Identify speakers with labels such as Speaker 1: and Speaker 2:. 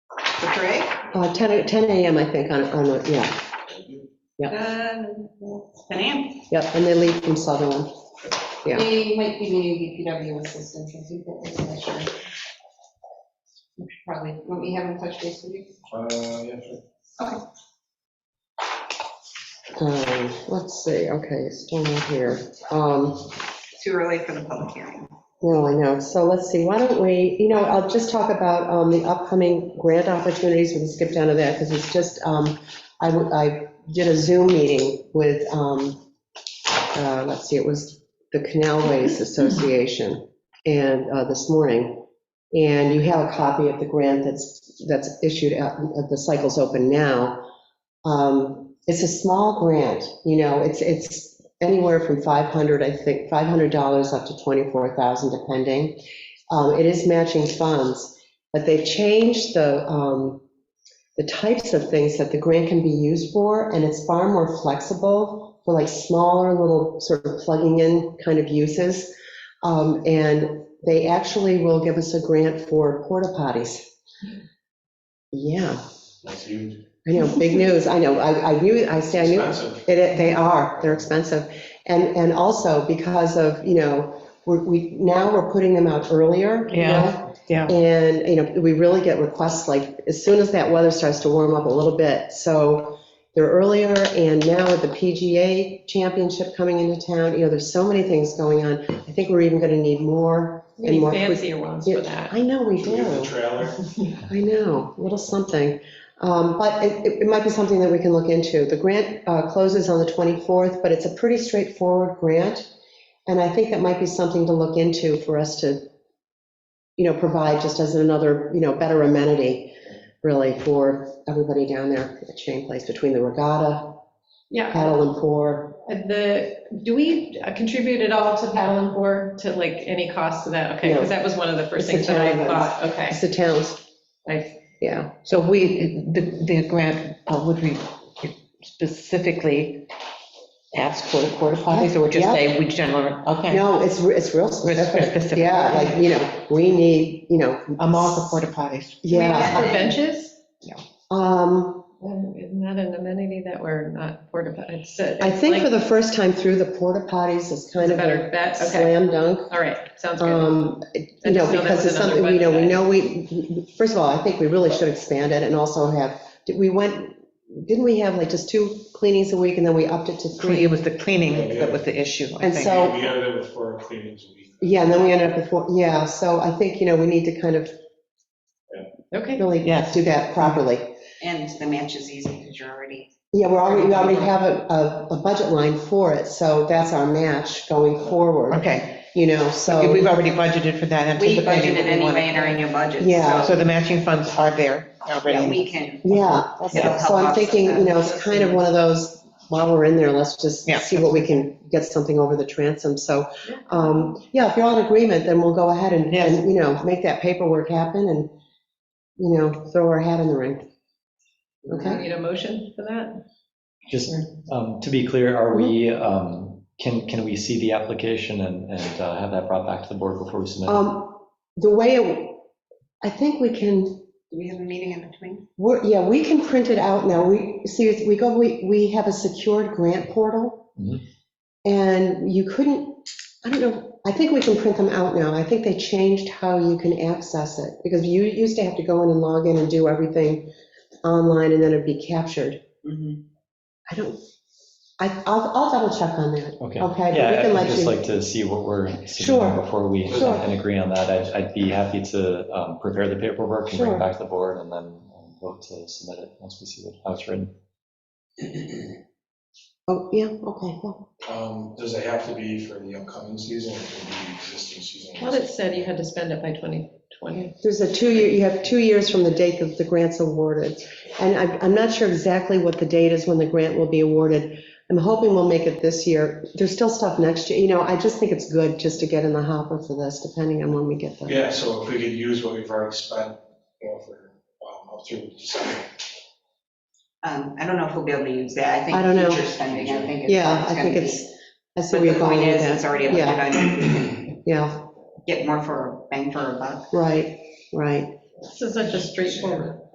Speaker 1: The parade?
Speaker 2: Uh, 10, a- 10 a.m., I think, on, on, a- yeah,
Speaker 1: Ten AM.
Speaker 2: yep, and they leave from Sutherland. Yeah.
Speaker 3: They might be needing DPW assistance, I think that was an issue. We should Probably, won't we have in touch base with you?
Speaker 4: Uh, yeah, sure.
Speaker 2: Um, Let's see, okay, still not here. Um,
Speaker 1: Too early for the public hearing.
Speaker 2: No, I know, so let's see, why don't we, you know, I'll just talk about um, the upcoming grant opportunities, we can skip down to that, because it's just, um, I w- I did a Zoom meeting with, um, uh, let's see, it was the Canal Ways Association, and uh, this morning, and you have a copy of the grant that's, that's issued out, uh, the cycle's open now. Um, It's a small grant, you know, it's, it's anywhere from 500, I think, $500 up to 24,000 depending. Um, It is matching funds, but they've changed the, um, the types of things that the grant can be used for, and it's far more flexible for like smaller little sort of plugging in kind of uses. Um, And they actually will give us a grant for porta potties. Yeah,
Speaker 4: That's huge.
Speaker 2: I know, big news, I know, I, I knew, I say I knew.
Speaker 4: Expensive.
Speaker 2: It- It, they are, they're expensive. And, and also because of, you know, we're, we, now we're putting them out earlier. you know?
Speaker 5: Yeah,
Speaker 2: And, you know, we really get requests like as soon as that weather starts to warm up a little bit. So they're earlier and now with the PGA championship coming into town, you know, there's so many things going on. I think we're even going to need more.
Speaker 5: We
Speaker 2: and
Speaker 5: need
Speaker 2: more quick-
Speaker 5: fancier ones for that.
Speaker 2: I know we
Speaker 4: Should we
Speaker 2: do.
Speaker 4: get the trailer?
Speaker 2: I know, a little something. Um, But it- it it might be something that we can look into. The grant uh, closes on the 24th, but it's a pretty straightforward grant. And I think that might be something to look into for us to, you know, provide just as another, you know, better amenity, really, for everybody down there at Shane Place, between the regatta,
Speaker 5: Yeah,
Speaker 2: paddle and pour.
Speaker 5: and the, do we contribute at all to paddle and board, to like any cost to that? Okay,
Speaker 2: No.
Speaker 5: because that was one of the first
Speaker 2: It's the
Speaker 5: things that I
Speaker 2: town
Speaker 5: thought, okay.
Speaker 2: It's the towns,
Speaker 5: I-
Speaker 2: yeah.
Speaker 6: So we, the, the grant uh, would we specifically ask for the porta potties, or just
Speaker 2: Yeah.
Speaker 6: say we generally, okay,
Speaker 2: No, it's, re- it's real
Speaker 6: specific.
Speaker 2: specific. Yeah, like, you know, we need, you know.
Speaker 6: I'm all for porta potties.
Speaker 5: Do we
Speaker 2: Yeah.
Speaker 5: ask for benches?
Speaker 2: Um,
Speaker 5: Um, Isn't that an amenity that we're not porta potties?
Speaker 2: I think for the first time through, the porta potties is kind
Speaker 5: It's a
Speaker 2: of
Speaker 5: better
Speaker 2: a
Speaker 5: bet, okay,
Speaker 2: slam dunk.
Speaker 5: all right, sounds good.
Speaker 2: Um,
Speaker 5: I
Speaker 2: You know,
Speaker 5: just know that
Speaker 2: because
Speaker 5: was
Speaker 2: it's
Speaker 5: another
Speaker 2: something, we know, we
Speaker 5: website.
Speaker 2: know, we, first of all, I think we really should expand it and also have, did we went, didn't we have like just two cleanings a week and then we upped it to three?
Speaker 6: It was the cleaning that was the issue, I
Speaker 2: And
Speaker 6: think.
Speaker 2: so-
Speaker 4: We had it before cleanings a week.
Speaker 2: Yeah, and then we ended up with, four- yeah, so I think, you know, we need to kind of
Speaker 5: Okay,
Speaker 2: really
Speaker 6: Yes.
Speaker 2: do that properly.
Speaker 1: And the match is easy because you're already,
Speaker 2: Yeah, we're already, we already have a, a- a budget line for it, so that's our match going forward,
Speaker 6: Okay,
Speaker 2: you know, so.
Speaker 6: we've already budgeted for that.
Speaker 1: we
Speaker 6: anticipating
Speaker 1: budgeted
Speaker 6: what we want.
Speaker 1: anyway and are in your budget.
Speaker 2: Yeah.
Speaker 6: So the matching funds are there
Speaker 1: So
Speaker 6: already.
Speaker 1: we can,
Speaker 2: Yeah,
Speaker 1: Yeah.
Speaker 2: so I'm thinking, you know, it's kind of one of those, while we're in there, let's just
Speaker 6: Yeah.
Speaker 2: see what we can get something over the transom. So, um, yeah, if you're all in agreement, then we'll go ahead and,
Speaker 6: Yes.
Speaker 2: and, you know, make that paperwork happen and, you know, throw our hat in the ring.
Speaker 5: do we
Speaker 2: Okay?
Speaker 5: need a motion for that?
Speaker 7: Just um, to be clear, are we,
Speaker 2: Mm-hmm.
Speaker 7: um, can, can we see the application and, and uh, have that brought back to the board before we submit? it?
Speaker 2: Um, the way, it- I think we can,
Speaker 1: Do we have a meeting in between?
Speaker 2: we're, yeah, we can print it out now. We, see, we go, we, we have a secured grant portal.
Speaker 7: Mhm.
Speaker 2: And you couldn't, I don't know, I think we can print them out now. I think they changed how you can access it, because you used to have to go in and log in and do everything online, and then it'd be captured.
Speaker 1: Mm-hmm.
Speaker 2: I don't, I, I'll, I'll double check on that. okay,
Speaker 7: Okay.
Speaker 2: but we
Speaker 7: Yeah,
Speaker 2: can
Speaker 7: I'd
Speaker 2: let
Speaker 7: just
Speaker 2: you-
Speaker 7: like to see what we're submitting
Speaker 2: Sure.
Speaker 7: before we
Speaker 2: Sure.
Speaker 7: and agree on that. I'd, I'd be happy to um, prepare the paperwork and bring
Speaker 2: Sure.
Speaker 7: it back to the board and then um, vote to submit it once we see what- how it's written.
Speaker 2: Oh, yeah, okay, yeah.
Speaker 4: Um, Does it have to be for the upcoming season or can it be existing season?
Speaker 5: I thought it said you had to spend it by 2020.
Speaker 2: There's a two-year, you have two years from the date that the grant's awarded. And I'm, I'm not sure exactly what the date is when the grant will be awarded. I'm hoping we'll make it this year. There's still stuff next year, you know, I just think it's good just to get in the hopper for this, depending on when we get there.
Speaker 4: Yeah, so if we could use what we've already spent, you know, for, um, up through December.
Speaker 1: Um, I don't know if we'll be able to use that. I
Speaker 2: I don't know.
Speaker 1: think future spending, I think. it's-
Speaker 2: Yeah, I
Speaker 1: gonna
Speaker 2: think
Speaker 1: be-
Speaker 2: it's, I
Speaker 1: But
Speaker 2: see where
Speaker 1: the
Speaker 2: you're going
Speaker 1: point
Speaker 2: with
Speaker 1: is, it's
Speaker 2: that.
Speaker 1: already a
Speaker 2: Yeah.
Speaker 1: budget item. We can
Speaker 2: Yeah,
Speaker 1: Get more for, bang for a buck.
Speaker 2: right, right.
Speaker 5: This is such a straightforward